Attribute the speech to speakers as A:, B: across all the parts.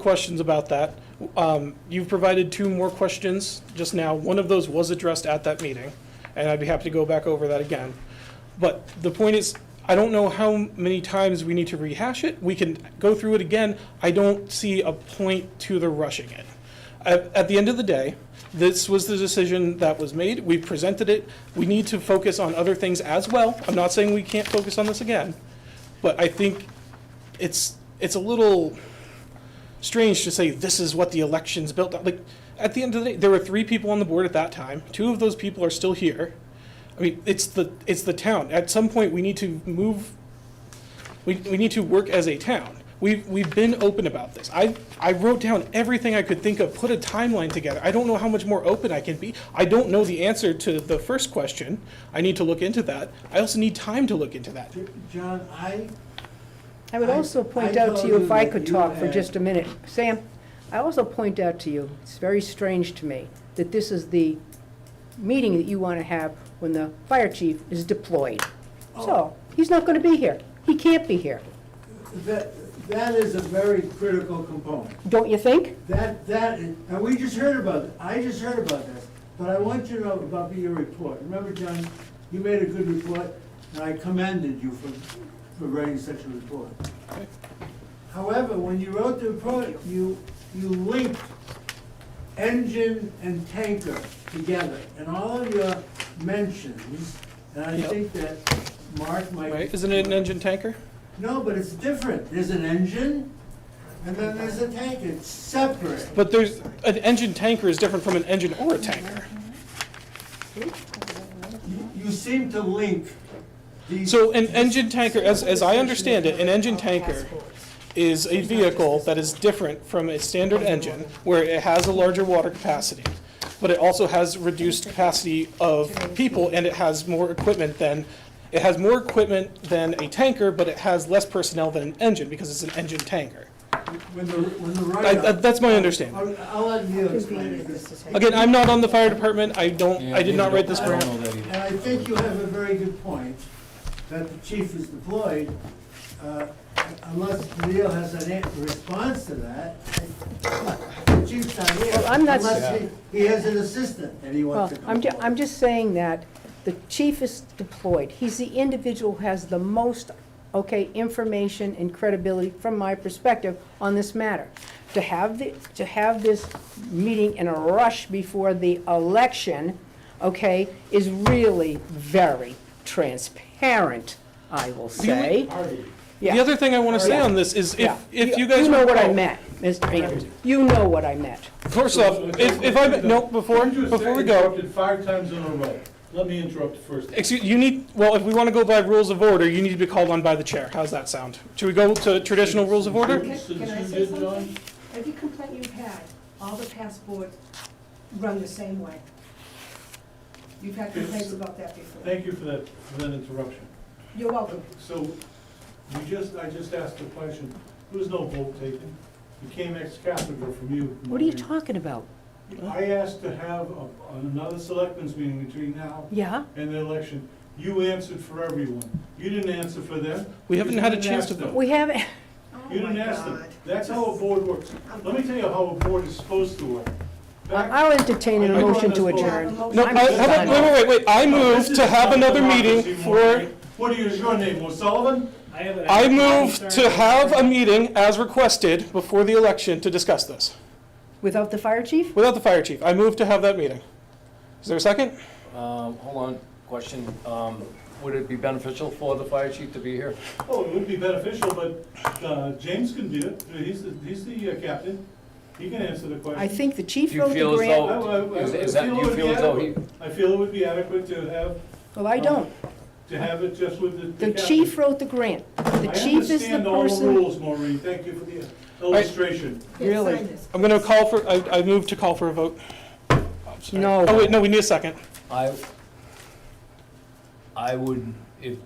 A: Questions about that. Um, You've provided two more questions just now. One of those was addressed at that meeting, and I'd be happy to go back over that again. But the point is, I don't know how many times we need to rehash it. We can go through it again. I don't see a point to the rushing it. At at the end of the day, this was the decision that was made. We presented it. We need to focus on other things as well. I'm not saying we can't focus on this again, but I think it's, it's a little strange to say this is what the election's built on. Like at the end of the day, there were three people on the board at that time. Two of those people are still here. I mean, it's the it's the town. At some point, we need to move. We, we need to work as a town. We've we've been open about this. I I wrote down everything I could think of, put a timeline together. I don't know how much more open I can be. I don't know the answer to the first question. I need to look into that. I also need time to look into that.
B: John, I,
C: I would
B: I-
C: also point
B: I
C: out to you, if
B: told
C: I
B: you
C: could
B: that you
C: talk for
B: had-
C: just a minute, Sam, I also point out to you, it's very strange to me, that this is the meeting that you want to have when the fire chief is deployed.
B: Oh.
C: So, he's not going to be here. He can't be here,
B: that, that is a very critical component.
C: don't you think?
B: That, that, is- and we just heard about it, I just heard about this, but I want you to know about your report. Remember, John, you made a good report, and I commended you for, for writing such a report. However, when you wrote the report, you, you linked engine and tanker together, and all of your mentions, and I
A: Yep.
B: think that Mark might.
A: Right? Isn't it an engine tanker?
B: No, but it's different. There's an engine, and then there's a tank. It's separate.
A: But there's an engine tanker is different from an engine or a tanker.
B: You- You seem to link these.
A: So an engine tanker, as, as I understand it, an engine tanker is a vehicle that is different from a standard engine, where it has a larger water capacity, but it also has reduced capacity of people, and it has more equipment than, it has more equipment than a tanker, but it has less personnel than an engine, because it's an engine tanker.
B: When the, when the
A: I,
B: write-up.
A: I- that's my understanding.
B: I'll, I'll let Neil explain it.
A: Again, I'm not on the fire department, I don't,
D: Yeah,
A: I did not write this
B: I don't-
A: grant.
D: know that either.
B: And I think you have a very good point, that the chief is deployed. Uh, Unless Neil has an an- response to that, the chief's not here.
C: Well, I'm not-
B: Unless he, he has an assistant and he
C: Well,
B: wants to come.
C: I'm, ju-
B: forward.
C: I'm just saying that the chief is deployed. He's the individual who has the most, okay, information and credibility, from my perspective, on this matter. To have the, to have this meeting in a rush before the election, okay, is really very transparent, I will say. Yeah. Oh,
A: The other thing I wanna say
C: Yeah.
A: on this is, if,
C: Yeah.
A: if you guys.
C: You know what I
A: recall-
C: meant, Mr. Andrews. You know what I meant.
A: First off, if, if I, may- no, before,
E: You just
A: before we go,
E: interrupted five times in a row. Let me interrupt first.
A: excuse, you need, well, if we want to go by rules of order, you need to be called on by the chair. How's that sound? Should we go to traditional rules of order?
F: Can can I
E: Since you
F: say
E: did,
F: something? Every complaint you've had, all the past boards run the same way. You've had complaints about that before.
E: Thank you for that, for that interruption.
F: You're welcome.
E: So, you just, I just asked a question. There was no vote taken. It came ex cathedra from you.
C: What are you talking about?
E: I asked to have a- another selectmen's meeting between now
C: Yeah?
E: and the election. You answered for everyone. You didn't answer for them.
A: We
E: You
A: haven't had a
E: didn't
A: chance
E: ask
A: to
E: them.
A: vote.
C: We haven't,
F: Oh
E: You didn't
F: my
E: ask them.
F: God.
E: That's how a board works. Let me tell you how a board is supposed to work. Back-
C: I'll entertain a
E: I- I-
C: motion to
F: Have a
C: adjourn.
A: No, I,
C: I'm
A: how about-
C: done.
A: wait, wait, wait, wait, I
E: No, Oh, this
A: move
E: is
A: to have
E: not
A: another meeting
E: democracy,
A: for,
E: Maureen. What is your name, O'Sullivan?
A: I move to have a meeting as requested before the election to discuss this,
C: Without the fire chief?
A: without the fire chief. I move to have that meeting. Is there a second?
D: Um, hold on, question, um, would it be beneficial for the fire chief to be here?
E: Oh, it would be beneficial, but uh, James can do it. He's the, he's the uh, captain. He can answer the question.
C: I think the
D: Do
C: chief
D: you
C: wrote the
D: feel as
C: grant.
E: I-
D: though,
E: I-
D: is
E: I
D: is that, do
E: feel it
D: you
E: would
D: feel
E: be
D: as though he,
E: adequate. I feel it would be adequate to have,
C: Well, I don't.
E: to have it just with the- the
C: The
E: captain.
C: chief wrote the grant. The chief is
E: Oh, I
C: the
E: understand all the
C: person.
E: rules, Maureen. Thank you for the illustration.
F: Here, sign
C: Really?
F: this.
A: I'm gonna call for, I, I move to call for a vote. I'm sorry.
C: No.
A: Oh, wait, no, we need a second.
D: I, I would, if,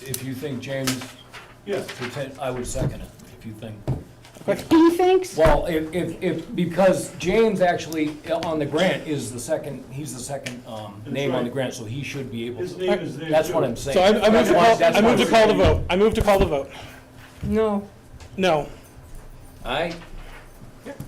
D: if you think James
E: Yes.
D: pretend, I would second it, if you think.
C: He thinks,
D: Well, if, if, if, because James actually, uh, on the grant, is the second, he's the second, um,
E: That's
D: name on the
E: right.
D: grant, so he should be able
E: His
D: to.
E: name is there.
D: That's what
E: too.
D: I'm saying.
A: So I, I move
D: That's
A: to
D: why-
A: call,
D: that's
A: I
D: why
A: move to
D: we're
A: call the
D: doing it.
A: vote. I move to call the vote.
C: no.
A: No.
D: Aye?